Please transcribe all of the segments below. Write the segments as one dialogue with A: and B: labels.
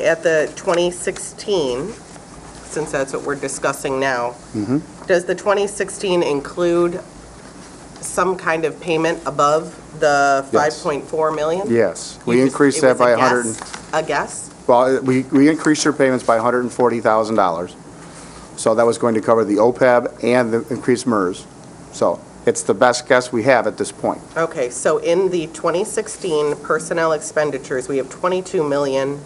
A: at the 2016, since that's what we're discussing now,
B: Mm-hmm.
A: does the 2016 include some kind of payment above the
B: Yes.
A: 5.4 million?
B: Yes,
A: You
B: we
A: just-
B: increased
A: it
B: that
A: was
B: by
A: a
B: 100, and-
A: guess? A guess?
B: well, uh, we, we increased their payments by $140,000. So that was going to cover the OPEB and the increased MERS. So it's the best guess we have at this point.
A: Okay, so in the 2016 personnel expenditures, we have 22 million,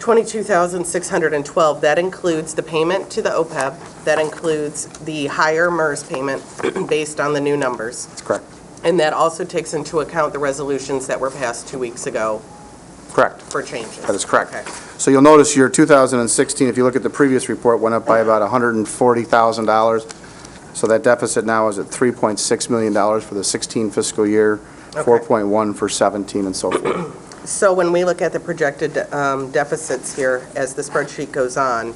A: 22,612. That includes the payment to the OPEB, that includes the higher MERS payment based on the new numbers.
B: That's correct.
A: And that also takes into account the resolutions that were passed two weeks ago
B: Correct.
A: for changes.
B: That is correct.
A: Okay.
B: So you'll notice your 2016, if you look at the previous report, went up by about $140,000. So that deficit now is at $3.6 million for the 16 fiscal year,
A: Okay.
B: 4.1 for 17 and so forth.
A: So when we look at the projected um, deficits here, as the spreadsheet goes on,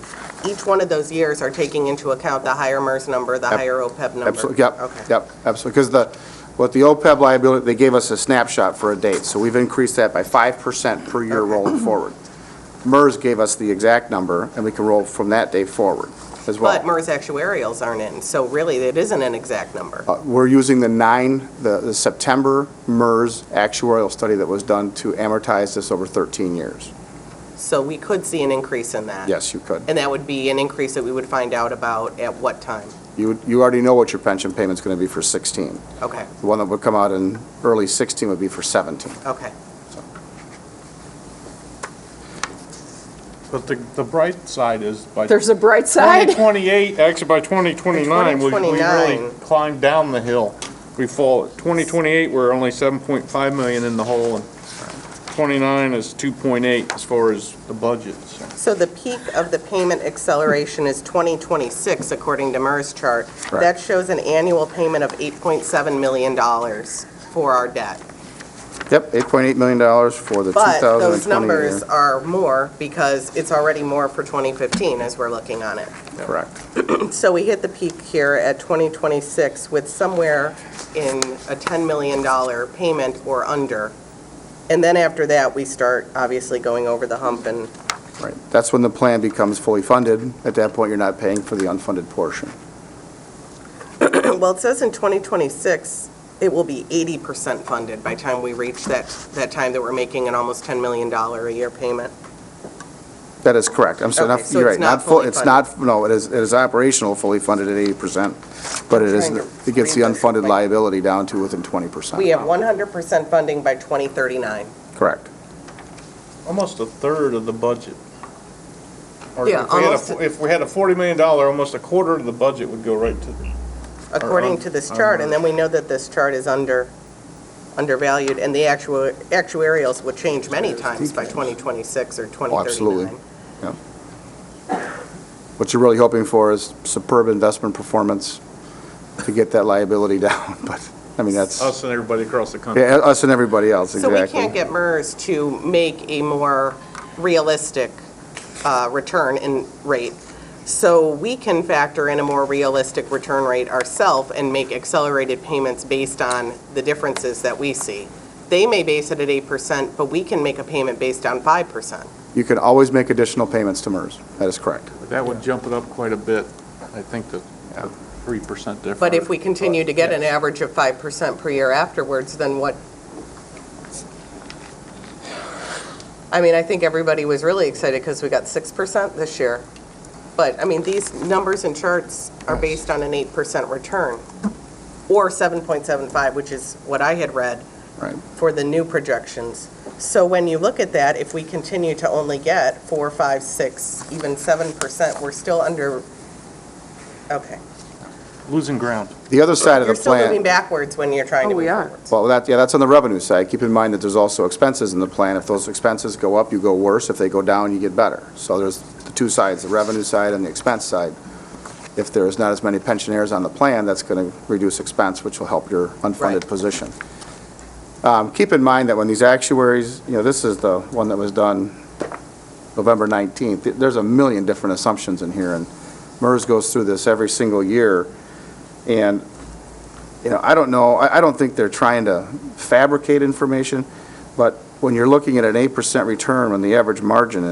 A: each one of those years are taking into account the higher MERS number, the
B: Yep.
A: higher OPEB number?
B: Absolutely, yep,
A: Okay.
B: yep, absolutely. Because the, what the OPEB liability, they gave us a snapshot for a date, so we've increased that by 5% per year rolling forward. MERS gave us the exact number, and we can roll from that day forward as well.
A: But MERS actuarials aren't in, so really, it isn't an exact number.
B: Uh, We're using the nine, the the September MERS actuarial study that was done to amortize this over 13 years.
A: So we could see an increase in that.
B: Yes, you could.
A: And that would be an increase that we would find out about at what time?
B: You you already know what your pension payment's going to be for 16.
A: Okay,
B: The one that would come out in early 16 would be for 17.
A: okay.
C: But the, the bright side is by
D: There's a bright side.
C: 2028, actually by 2029, we we
A: 2029.
C: really climb down the hill. We fall, 2028, we're only 7.5 million in the hole, and 29 is 2.8 as far as the budget. so.
A: So the peak of the payment acceleration is 2026, according to MERS chart.
B: Right.
A: That shows an annual payment of $8.7 million for our debt.
B: Yep, $8.8 million for the 2020 year.
A: But those numbers are more because it's already more for 2015 as we're looking on it.
B: Correct.
A: So we hit the peak here at 2026 with somewhere in a $10 million payment or under. And then after that, we start obviously going over the hump and,
B: Right. That's when the plan becomes fully funded. At that point, you're not paying for the unfunded portion.
A: well, it says in 2026, it will be 80% funded by time we reach that, that time that we're making an almost $10 million a year payment.
B: That is correct. I'm sorry,
A: Okay,
B: not-
A: so
B: you're
A: it's
B: right.
A: not
B: full-
A: fully
B: It's not, no, it is, it is operational, fully funded at 80%, but it is,
A: Trying to
B: it gets the
A: read this,
B: unfunded
A: like-
B: liability down to within 20%.
A: We have 100% funding by 2039.
B: Correct.
C: Almost a third of the budget. Or if
A: Yeah,
C: we had a-
A: almost a-
C: If we had a $40 million, almost a quarter of the budget would go right to the
A: according
C: un-
A: to this chart, and then we know that this chart is under, undervalued, and the actual, actuarials will change many times by 2026 or 2039.
B: absolutely. What you're really hoping for is superb investment performance to get that liability down, but, I mean, that's,
C: us and everybody across the country.
B: yeah, us and everybody else,
A: So
B: exactly.
A: we can't get MERS to make a more realistic uh, return in rate. So we can factor in a more realistic return rate ourselves and make accelerated payments based on the differences that we see. They may base it at 8%, but we can make a payment based on 5%.
B: You can always make additional payments to MERS. That is correct.
C: That would jump it up quite a bit, I think, the the 3% difference.
A: But if we continue to get an average of 5% per year afterwards, then what? I mean, I think everybody was really excited because we got 6% this year. But, I mean, these numbers and charts are based on an 8% return, or 7.75, which is what I had read
B: Right.
A: for the new projections. So when you look at that, if we continue to only get 4, 5, 6, even 7%, we're still under, okay.
C: Losing ground.
B: The other side of the
A: You're still moving
B: plan,
A: backwards when you're trying to
D: Oh, we
A: move
D: are.
A: forwards.
B: well, that, yeah, that's on the revenue side. Keep in mind that there's also expenses in the plan. If those expenses go up, you go worse. If they go down, you get better. So there's the two sides, the revenue side and the expense side. If there's not as many pensioners on the plan, that's going to reduce expense, which will help your
A: Right.
B: unfunded position. Um, Keep in mind that when these actuaries, you know, this is the one that was done November 19th, Th- there's a million different assumptions in here, and MERS goes through this every single year, and, you know, I don't know, I I don't think they're trying to fabricate information, but when you're looking at an 8% return, when the average margin